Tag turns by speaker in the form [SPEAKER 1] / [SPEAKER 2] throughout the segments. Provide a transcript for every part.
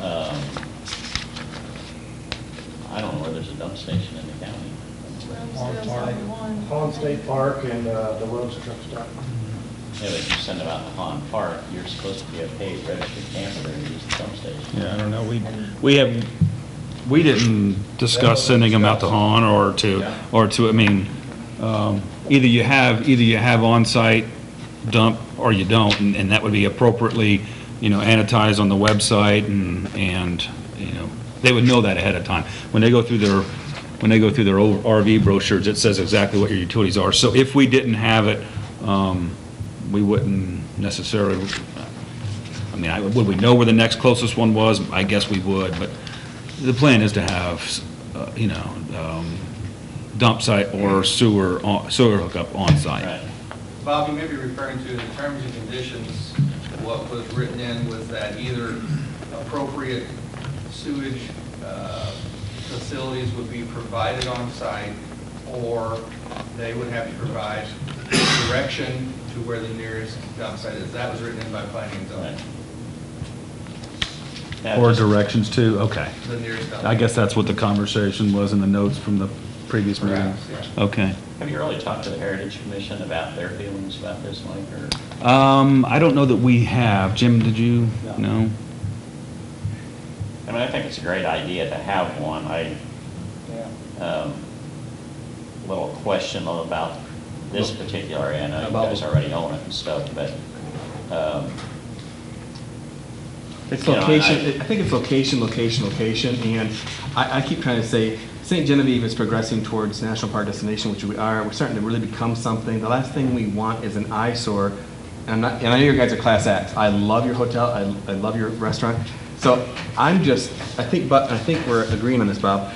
[SPEAKER 1] Um, dump station in the county.
[SPEAKER 2] Hall Park-
[SPEAKER 3] Hall
[SPEAKER 2] Hall
[SPEAKER 3] State Park and uh, the Lowe's truck stop.
[SPEAKER 1] Yeah, but you send them out to Han Park, you're supposed to be a paid registered camper and use the dump station.
[SPEAKER 4] Yeah, I don't know, we, we have, we didn't discuss sending them out to Han or to, or to, I mean, um, either you have, either you have on-site dump or you don't, and, and that would be appropriately, you know, annotated on the website and, and, you know, they would know that ahead of time. When they go through their, when they go through their old RV brochures, it says exactly what your utilities are. So if we didn't have it, um, we wouldn't necessarily, I mean, I- would we know where the next closest one was? I guess we would, but the plan is to have, uh, you know, um, dump site or sewer, on- sewer hookup on site.
[SPEAKER 1] Right.
[SPEAKER 5] Bob, you may be referring to in terms and conditions, what was written in was that either appropriate sewage uh, facilities would be provided on site, or they would have to provide direction to where the nearest dump site is. That was written in by planning and zoning,
[SPEAKER 1] That
[SPEAKER 4] Or
[SPEAKER 1] just-
[SPEAKER 4] directions to, okay.
[SPEAKER 5] the nearest dump.
[SPEAKER 4] I guess that's what the conversation was in the notes from the previous meeting.
[SPEAKER 5] Perhaps, yeah.
[SPEAKER 4] Okay.
[SPEAKER 1] Have you really talked to the Heritage Commission about their feelings about this, Mike, or?
[SPEAKER 4] Um, I don't know that we have. Jim, did you?
[SPEAKER 1] No.
[SPEAKER 4] No?
[SPEAKER 1] I mean, I think it's a great idea to have one. I, um, little question about this particular area. I know you
[SPEAKER 6] About-
[SPEAKER 1] guys already own it and stuff, but, um,
[SPEAKER 6] It's
[SPEAKER 1] You know, and
[SPEAKER 6] location, I think it's location, location, location, and I, I keep trying to say, St. Genevieve is progressing towards national park destination, which we are, we're starting to really become something. The last thing we want is an eyesore, and I'm not, and I know you guys are class acts. I love your hotel, I, I love your restaurant. So I'm just, I think, but, I think we're agreeing on this, Bob.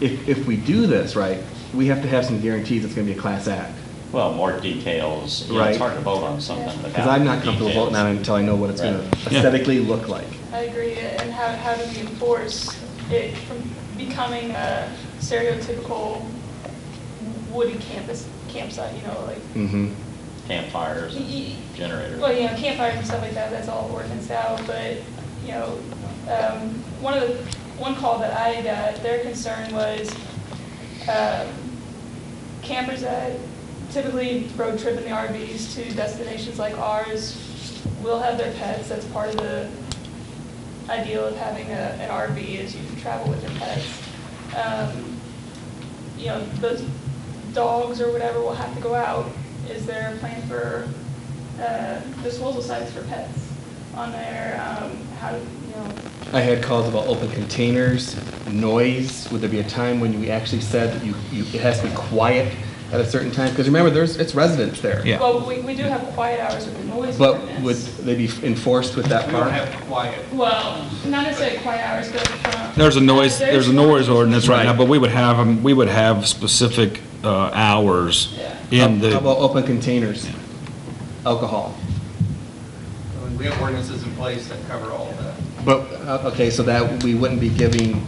[SPEAKER 6] If, if we do this right, we have to have some guarantees it's gonna be a class act.
[SPEAKER 1] well, more details. You know, It's
[SPEAKER 6] Right.
[SPEAKER 1] hard to vote on something without.
[SPEAKER 6] Because I'm not comfortable
[SPEAKER 1] details.
[SPEAKER 6] voting on it until I know what it's gonna
[SPEAKER 1] Right.
[SPEAKER 4] Yeah.
[SPEAKER 6] aesthetically look like.
[SPEAKER 2] I agree, and how, how do we enforce it from becoming a stereotypical woody campus, campsite, you know, like,
[SPEAKER 6] Mm-hmm.
[SPEAKER 1] Campfires
[SPEAKER 2] Y-
[SPEAKER 1] and generators.
[SPEAKER 2] well, you know, campfires and stuff like that, that's all ordinance out, but, you know, um, one of the, one call that I got, their concern was, um, campers that typically road trip in the RVs to destinations like ours will have their pets, that's part of the ideal of having a, an RV is you can travel with your pets. Um, you know, those dogs or whatever will have to go out. Is there a plan for uh, disposal sites for pets on there? Um, How, do you know,
[SPEAKER 6] I had calls about open containers, noise, would there be a time when you actually said that you, you, it has to be quiet at a certain time? Because remember, there's, it's residents there.
[SPEAKER 4] Yeah.
[SPEAKER 2] well, we, we do have quiet hours with the noise
[SPEAKER 6] But would
[SPEAKER 2] ordinance.
[SPEAKER 6] they be enforced with that
[SPEAKER 5] We don't
[SPEAKER 6] part?
[SPEAKER 5] have quiet.
[SPEAKER 2] Well, not necessarily quiet hours, but um, from.
[SPEAKER 4] There's a noise, there's a noise ordinance right now,
[SPEAKER 6] Right.
[SPEAKER 4] but we would have, 'em- we would have specific, uh, hours
[SPEAKER 2] Yeah.
[SPEAKER 4] in the.
[SPEAKER 6] How about open containers? Alcohol.
[SPEAKER 5] I mean, We have ordinances in place that cover all of that.
[SPEAKER 6] But, uh, okay, so that we wouldn't be giving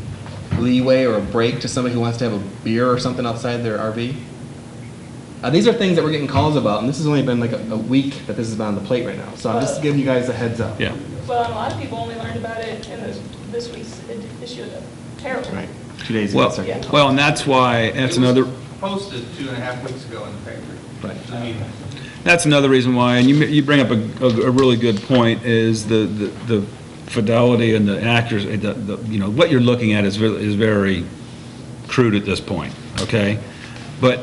[SPEAKER 6] leeway or a break to somebody who wants to have a beer or something outside their RV? Uh, these are things that we're getting calls about, and this has only been like a, a week that this has been on the plate right now. So I'm just giving you guys a heads up.
[SPEAKER 4] Uh, Yeah.
[SPEAKER 2] Well, and a lot of people only learned about it in this, this week's ed- issue of the Herald.
[SPEAKER 6] Right, two days ago.
[SPEAKER 4] Well,
[SPEAKER 6] sorry.
[SPEAKER 2] Yeah.
[SPEAKER 4] well, and that's why, that's
[SPEAKER 5] It was
[SPEAKER 4] another.
[SPEAKER 5] Posted two and a half weeks ago in the paper.
[SPEAKER 6] Right.
[SPEAKER 5] I mean,
[SPEAKER 4] That's another reason why, and you, you bring up a, a- a really good point, is the, the the fidelity and the accuracy, the, the, you know, what you're looking at is, ve- is very crude at this point, okay? But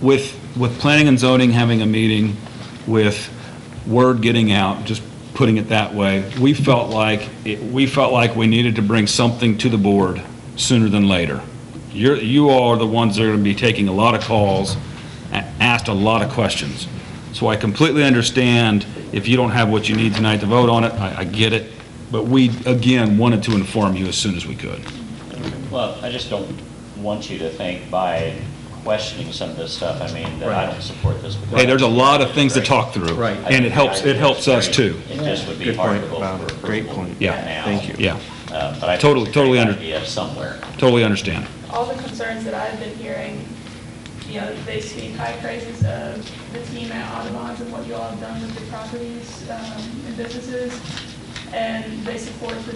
[SPEAKER 4] with, with planning and zoning having a meeting, with word getting out, just putting it that way, we felt like, it- we felt like we needed to bring something to the board sooner than later. You're, you all are the ones that are gonna be taking a lot of calls, a- asked a lot of questions. So I completely understand if you don't have what you need tonight to vote on it, I, I get it. But we, again, wanted to inform you as soon as we could.
[SPEAKER 1] Well, I just don't want you to think by questioning some of this stuff, I mean, that I
[SPEAKER 6] Right.
[SPEAKER 1] don't support this. because-
[SPEAKER 4] Hey, there's a lot of things to talk through.
[SPEAKER 6] Right.
[SPEAKER 1] I
[SPEAKER 4] And it
[SPEAKER 1] think
[SPEAKER 4] helps,
[SPEAKER 1] the
[SPEAKER 4] it helps
[SPEAKER 1] idea
[SPEAKER 4] us
[SPEAKER 1] is great.
[SPEAKER 4] too.
[SPEAKER 1] It just would be
[SPEAKER 6] Good
[SPEAKER 1] hard
[SPEAKER 6] point,
[SPEAKER 1] to vote
[SPEAKER 6] Bob.
[SPEAKER 1] for
[SPEAKER 6] Great
[SPEAKER 1] approval
[SPEAKER 6] point.
[SPEAKER 4] Yeah.
[SPEAKER 1] now.
[SPEAKER 6] Thank you.
[SPEAKER 4] Yeah,
[SPEAKER 1] Uh, But I think
[SPEAKER 4] Totally-
[SPEAKER 1] it's a
[SPEAKER 4] totally
[SPEAKER 1] great
[SPEAKER 4] under-
[SPEAKER 1] idea somewhere.
[SPEAKER 4] totally understand.
[SPEAKER 2] all the concerns that I've been hearing, you know, they speak high praises of the team at Audubon's and what you all have done with the properties um, and businesses, and they support the